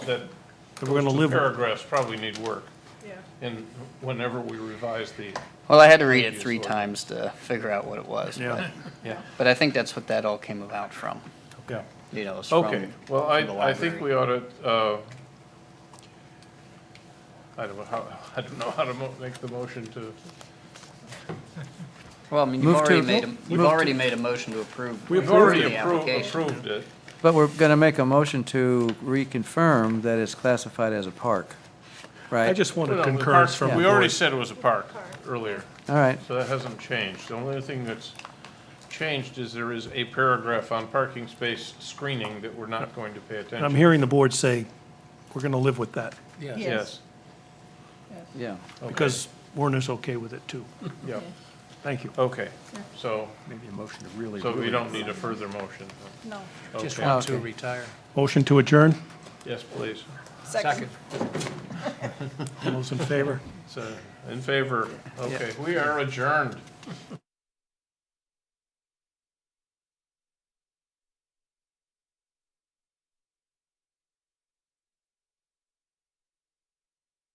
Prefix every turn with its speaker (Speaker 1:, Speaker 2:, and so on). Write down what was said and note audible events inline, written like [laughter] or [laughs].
Speaker 1: that
Speaker 2: that we're gonna live with.
Speaker 1: paragraphs probably need work.
Speaker 3: Yeah.
Speaker 1: And whenever we revise the,
Speaker 4: Well, I had to read it
Speaker 1: Use
Speaker 4: three
Speaker 1: word.
Speaker 4: times to figure out what it was.
Speaker 2: Yeah,
Speaker 1: yeah.
Speaker 4: But I think that's what that all came about from,
Speaker 2: yeah.
Speaker 4: you know, it was from.
Speaker 1: Okay, well,
Speaker 4: from the
Speaker 1: I, I think
Speaker 4: library.
Speaker 1: we ought to, uh, I don't know how, [laughs] I don't know how to mo- make the motion to,
Speaker 4: Well, I mean, you've
Speaker 5: Move to-
Speaker 4: already made, a-
Speaker 2: move
Speaker 4: you've
Speaker 2: to-
Speaker 4: already made a motion to approve.
Speaker 1: we've
Speaker 4: the
Speaker 1: already approved,
Speaker 4: application.
Speaker 1: approved it.
Speaker 5: But we're going to make a motion to reconfirm that it's classified as a park, right?
Speaker 2: I just
Speaker 1: No,
Speaker 2: wanted
Speaker 1: no, the
Speaker 2: concurrence
Speaker 1: park-
Speaker 2: from the
Speaker 1: We already
Speaker 2: board.
Speaker 1: said it was a park earlier,
Speaker 5: All right,
Speaker 1: so that hasn't changed. The only thing that's changed is there is a paragraph on parking space screening that we're not going to pay
Speaker 2: And I'm
Speaker 1: attention.
Speaker 2: hearing the board say, we're gonna live with that,
Speaker 1: Yes,
Speaker 5: yeah.
Speaker 1: Okay.
Speaker 2: because Warner's okay with it too.
Speaker 1: yeah,
Speaker 2: Thank you.
Speaker 1: okay, so,
Speaker 6: Maybe a motion to really.
Speaker 1: so we
Speaker 6: really-
Speaker 1: don't need a further motion.
Speaker 3: No.
Speaker 6: Just
Speaker 1: Oh, Okay,
Speaker 6: want to
Speaker 5: Okay.
Speaker 6: retire.
Speaker 2: Motion to adjourn,
Speaker 1: yes, please.
Speaker 3: Second.
Speaker 2: all those in favor?
Speaker 1: So, in favor, okay, we are adjourned.